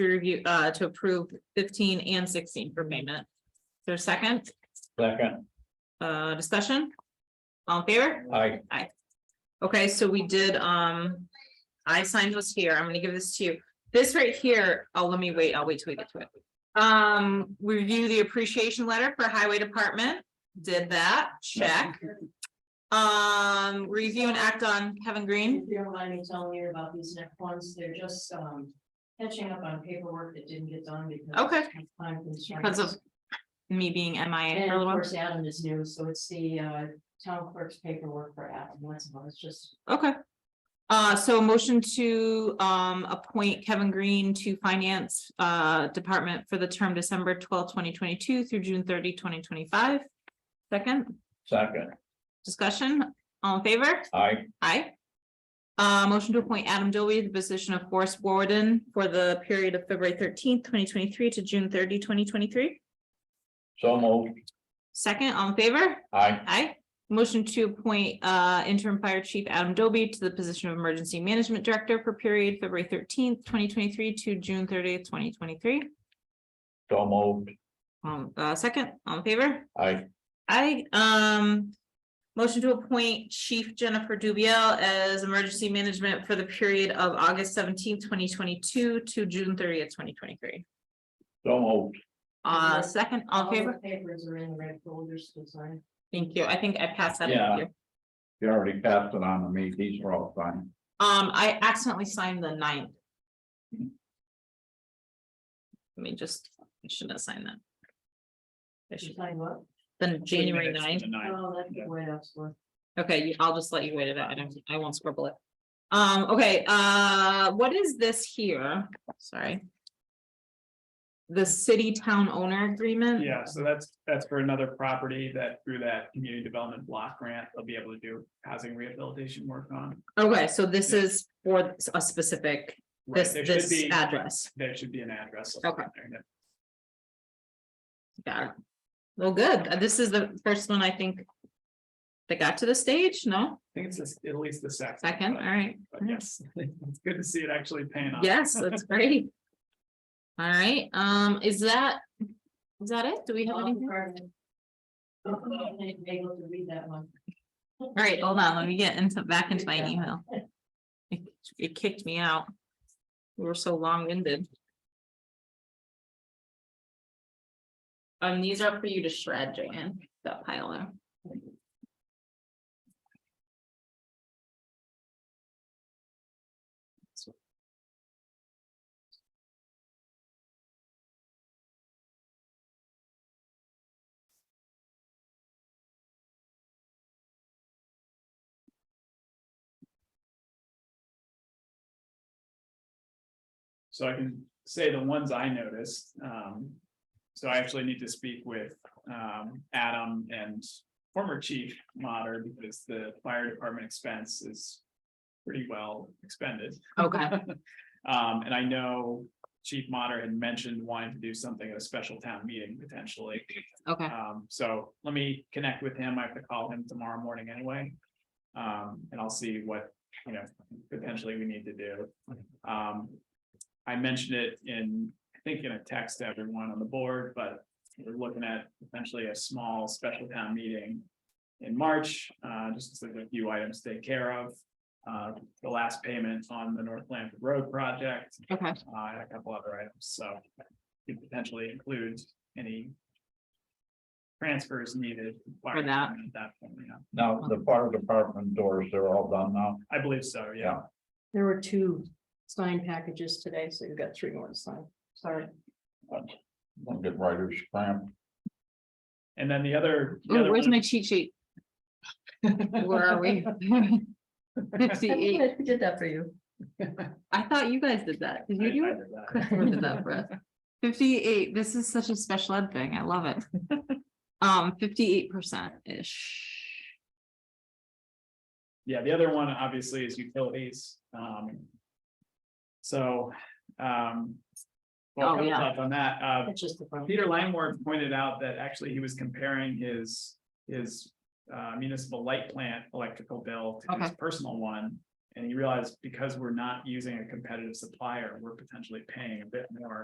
to review, uh, to approve fifteen and sixteen for payment. There's second, Second, uh, discussion? All in favor? I, Okay, so we did, um, I signed this here. I'm gonna give this to you. This right here, oh, let me wait, I'll wait till we get to it. Um, we review the appreciation letter for Highway Department, did that, check. Um, review and act on Kevin Green. If you don't mind me telling you about these next ones, they're just, um, catching up on paperwork that didn't get done because. Okay. of time constraints. Because of me being MIA And for a of little while. course, Adam is new, so it's the, uh, town clerk's paperwork for Adam, that's all, it's just. Okay. Uh, so a motion to, um, appoint Kevin Green to Finance, uh, Department for the term December twelfth, twenty twenty-two through June 30, 2025. Second, second, discussion, all in favor? I, Aye. Uh, motion to appoint Adam Dowie to the position of Forest Warden for the period of February thirteenth, twenty twenty-three to June 30, 2023. so moved, Second, all in favor? I, Aye. Motion to appoint uh interim fire chief Adam Doby to the position of emergency management director for period February thirteenth, twenty twenty-three to June thirtieth, twenty twenty-three. so moved, Um, uh, second, all in favor? I, Aye. um. Motion to appoint Chief Jennifer Dubiel as emergency management for the period of August seventeenth, twenty twenty-two to June thirtieth, twenty twenty-three. so moved, Uh, second, all in the favor? Papers are in the red folders, to sign. Thank you. I think I passed that. Yeah. Thank you. you already passed it on to me, these are all fine. Um, I accidentally signed the ninth. Let me just, I shouldn't have signed that. I you should, sign what? then January ninth, Oh, that's the way that's for. okay, you- I'll just let you wait it out, I don't, I won't scribble it. Um, okay, uh, what is this here? Sorry. The city town owner agreement? Yeah, so that's, that's for another property that through that community development block grant, they'll be able to do housing rehabilitation work on. Okay, so this Yeah. is for a specific, Right, this, there should this be, address. there should be an address. Okay. there, yeah. Got it. Well, good. Uh, This is the first one I think. That got to the stage, no? I think it's this- at least the second. Second, all but- right. but Yes, it's good to see it actually paying off. Yes, that's great. All right, um, is that, is that it? Do we have anything? I'm not able to read that one. All right, hold on, let me get into, back into my email. It- It kicked me out. We were so long-winded. Um, these are for you to shred, Joanne, that pile there. So I can say the ones I noticed, um, so I actually need to speak with, um, Adam and former chief Mater because the fire department expense is pretty well expended. Okay, Um, and I know Chief Mater had mentioned wanting to do something at a special town meeting potentially. okay, Um, so let me connect with him. I have to call him tomorrow morning anyway. Um, and I'll see what, you know, potentially we need to do. Um, I mentioned it in, I think in a text to everyone on the board, but we're looking at potentially a small special town meeting in March, uh, just to a few items to take care of. Uh, the last payment on the North Lamford Road project, okay, uh, and a couple other items, so. Could potentially include any. Transfers needed. For that. At that point, yeah, Now, the fire department doors, they're all done now, I believe so, yeah. Yeah. There were two signed packages today, so you've got three more to sign. Sorry. don't get writers cramp. And then the other. the Ooh, other where's one- my cheat sheet? Where are we? Fifty-eight, Did that for you. I thought you guys did that, did I- you do I it? did that. Christopher did that for us. Fifty-eight, this is such a special ed thing, I love it. Um, fifty-eight percent ish. Yeah, the other one obviously is utilities, um. So, Oh, um. Well, couple yeah. thoughts on that, uh, That's just the front. Peter Langworth pointed out that actually he was comparing his, his uh, municipal light plant electrical bill to his personal one. And he realized because we're not using a competitive supplier, we're potentially paying a bit more